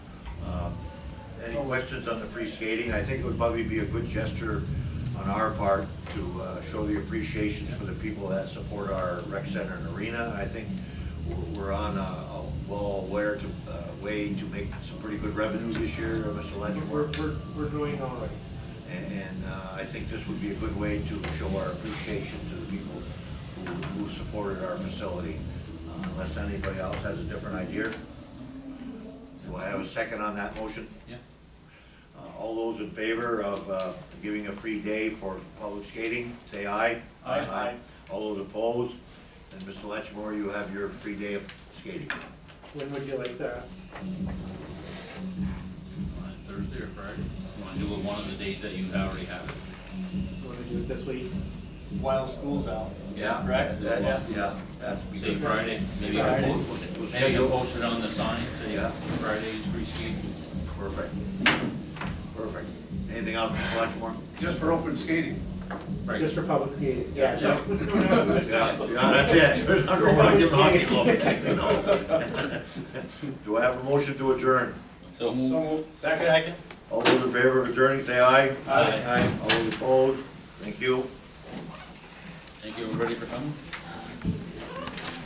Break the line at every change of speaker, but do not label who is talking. Um, Any questions on the free skating? I think it would probably be a good gesture on our part to uh, show the appreciation for the people that support our rec center and arena. And I think we're- we're on a a well aware to, uh, way to make some pretty good revenue this year, uh, Mr.
We're,
Leavenworth.
we're, we're doing all right.
And, and uh, I think this would be a good way to show our appreciation to the people who, who supported our facility. Uh, Unless anybody else has a different idea. Do I have a second on that motion?
Yeah.
Uh, All those in favor of uh, giving a free day for public skating, say aye.
Aye.
All those opposed? And Mr. Letchmore, you have your free day of skating.
When would you like that?
On Thursday or Friday? You wanna do it one of the days that you already have it?
Want to do it this week?
while school's out.
Yeah,
Right.
that- that- Yeah, that's
Say
because,
Friday, maybe you
Friday.
can
We'll-
post,
we'll
maybe you
schedule-
post it on the sign, say
Yeah.
Friday is free skate.
perfect, perfect. Anything else, Mr. Letchmore?
Just for open skating.
Right.
Just for public skating? Yeah.
Yeah, yeah, that's it. There's not a lot of hockey club, you know. Do I have a motion to adjourn?
So move.
Second.
All those in favor of adjourning, say aye.
Aye.
All those opposed? Thank you.
Thank you, everybody, for coming.